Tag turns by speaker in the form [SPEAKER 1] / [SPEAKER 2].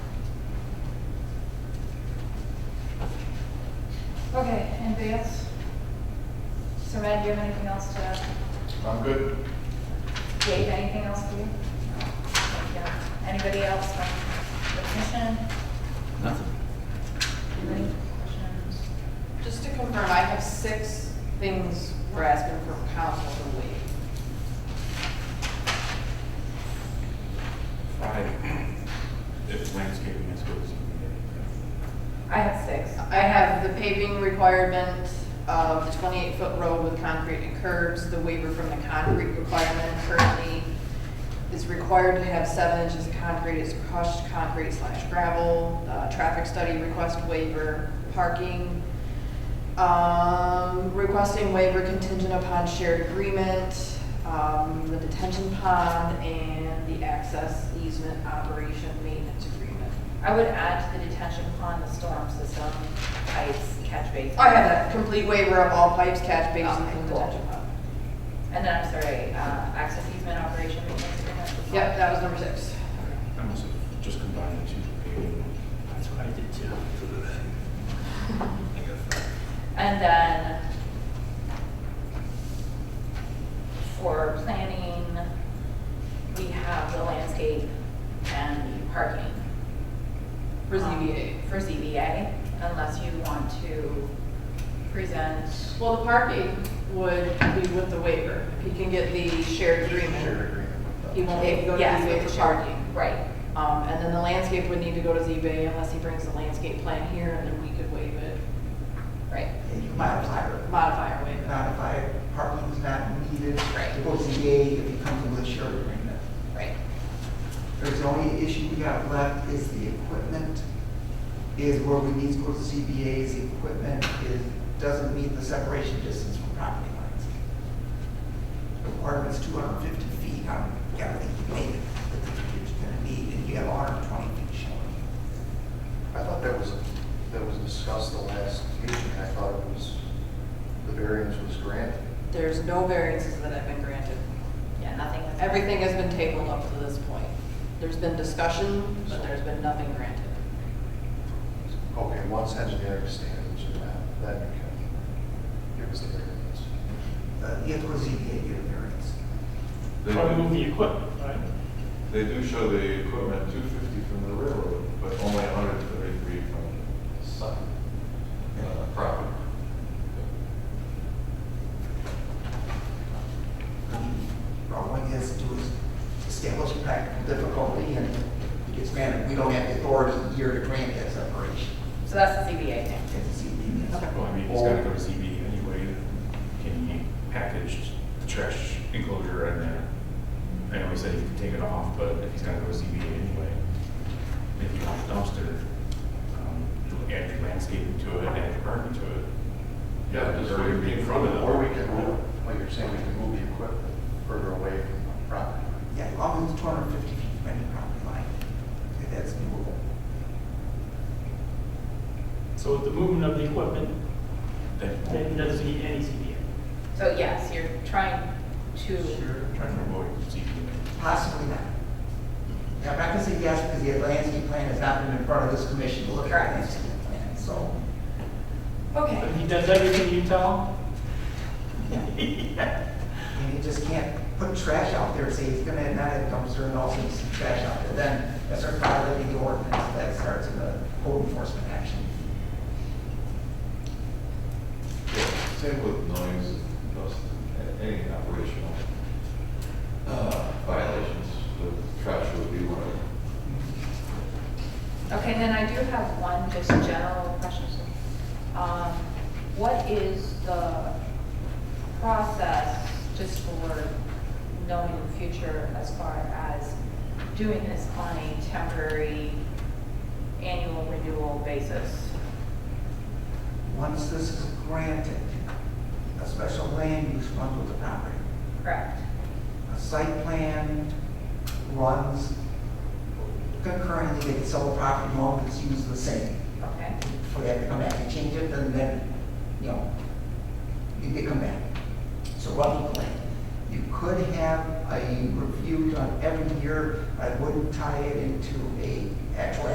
[SPEAKER 1] Okay, anybody else? So Matt, do you have anything else to add?
[SPEAKER 2] I'm good.
[SPEAKER 1] Jade, anything else for you? No. Yeah. Anybody else from the commission?
[SPEAKER 3] Nothing.
[SPEAKER 1] Any questions?
[SPEAKER 4] Just to confirm, I have six things we're asking for council to waive.
[SPEAKER 5] Five, if landscaping is good, so we
[SPEAKER 1] I have six.
[SPEAKER 4] I have the paving requirement of the twenty-eight foot road with concrete and curbs, the waiver from the concrete requirement currently is required to have seven inches of concrete, is crushed concrete slash gravel, uh, traffic study request waiver, parking, Um, requesting waiver contingent upon shared agreement, um, the detention pond, and the access easement operation maintenance agreement.
[SPEAKER 1] I would add to the detention pond, the storm system, pipes, catch basin.
[SPEAKER 4] I have that complete waiver of all pipes, catch basins,
[SPEAKER 1] Okay,
[SPEAKER 4] and
[SPEAKER 1] cool.
[SPEAKER 4] detention pond.
[SPEAKER 1] And then, I'm sorry, uh, access easement operation maintenance agreement.
[SPEAKER 4] Yep, that was number six.
[SPEAKER 5] can- I must have just combined the two. paving.
[SPEAKER 3] That's what I did too.
[SPEAKER 1] And then for planning, we have the landscape and the parking.
[SPEAKER 4] For
[SPEAKER 1] Um,
[SPEAKER 4] ZBA.
[SPEAKER 1] For ZBA, unless you want to present,
[SPEAKER 4] Well, the parking would be with the waiver. If he can get the shared
[SPEAKER 2] Shared
[SPEAKER 4] agreement,
[SPEAKER 2] agreement with
[SPEAKER 4] he
[SPEAKER 2] them.
[SPEAKER 4] won't need to go to
[SPEAKER 1] Yes,
[SPEAKER 4] ZBA
[SPEAKER 1] with
[SPEAKER 4] for
[SPEAKER 1] the
[SPEAKER 4] parking.
[SPEAKER 1] right,
[SPEAKER 4] Um, and then the landscape would need to go to ZBA unless he brings the landscape plan here and then we could waive it,
[SPEAKER 1] right.
[SPEAKER 6] And you modify it.
[SPEAKER 4] modify or waive it.
[SPEAKER 6] Modify it, parking is not needed.
[SPEAKER 1] Right.
[SPEAKER 6] The OCA, if it comes with a shared agreement.
[SPEAKER 1] Right.
[SPEAKER 6] There's the only issue we got left is the equipment is where we need to go to CBA's equipment is, doesn't meet the separation distance from property lines. The Requirement's two hundred and fifty feet, I don't, I think you made it, it's gonna need, and you have hundred and twenty feet showing.
[SPEAKER 7] I thought that was, that was discussed the last meeting, I thought it was, the variance was granted.
[SPEAKER 4] There's no variances that have been granted.
[SPEAKER 1] Yeah, nothing has.
[SPEAKER 4] Everything has been tabled up to this point. There's been discussion, but there's been nothing granted.
[SPEAKER 7] Okay, once engineering standards are met, then you can give us the variance.
[SPEAKER 6] Uh, you have to go to CBA, get a variance.
[SPEAKER 8] They
[SPEAKER 9] Or move
[SPEAKER 8] do,
[SPEAKER 9] the equipment, right?
[SPEAKER 8] they do show the equipment two fifty from the railroad, but only hundred thirty-three from the side, uh, property.
[SPEAKER 6] I mean, all one has to do is establish practical difficulty and it gets granted. We don't have the authority here to grant that separation.
[SPEAKER 1] So that's the ZBA thing.
[SPEAKER 6] It's a CBA.
[SPEAKER 5] Well, I mean, it's gotta go to ZB anyway, can you package the trash enclosure in there? I know he said he could take it off, but if he's gotta go to ZB anyway, if you want a dumpster, um, you add your landscaping to it, add your parking to it. Yeah, just
[SPEAKER 8] Or it'd be in front of them.
[SPEAKER 7] Or we can, move- like you're saying, we can move the equipment further away from the property.
[SPEAKER 6] Yeah, as long as it's two hundred and fifty feet from any property line, if that's doable.
[SPEAKER 9] So with the movement of the equipment,
[SPEAKER 8] Then-
[SPEAKER 9] then it doesn't need any ZBA.
[SPEAKER 1] So yes, you're trying to,
[SPEAKER 6] Sure.
[SPEAKER 8] Trying to avoid ZB.
[SPEAKER 6] Possibly not. Now, I'm not gonna say yes, because the landscape plan has not been in front of this commission to look at the landscape plan, so.
[SPEAKER 1] okay.
[SPEAKER 9] But he does everything you tell,
[SPEAKER 6] And you just can't put trash out there, say he's gonna not have dumpster and also some trash out there, then that's our violating the ordinance, that starts the code enforcement action.
[SPEAKER 8] Yeah, Same with noise, most, any operational uh, violations, the trash would be one of them.
[SPEAKER 1] Okay, and then I do have one just general question. Um, What is the process, just for knowing in the future, as far as doing this on a temporary annual renewal basis?
[SPEAKER 6] Once this is granted, a special land use runs with the property.
[SPEAKER 1] Correct.
[SPEAKER 6] A site plan runs concurrently, they can sell the property along, it's used the same.
[SPEAKER 1] Okay,
[SPEAKER 6] For that to come back and change it, and then, you know, you could come back. So run with the land. You could have a review done every year, I wouldn't tie it into a actual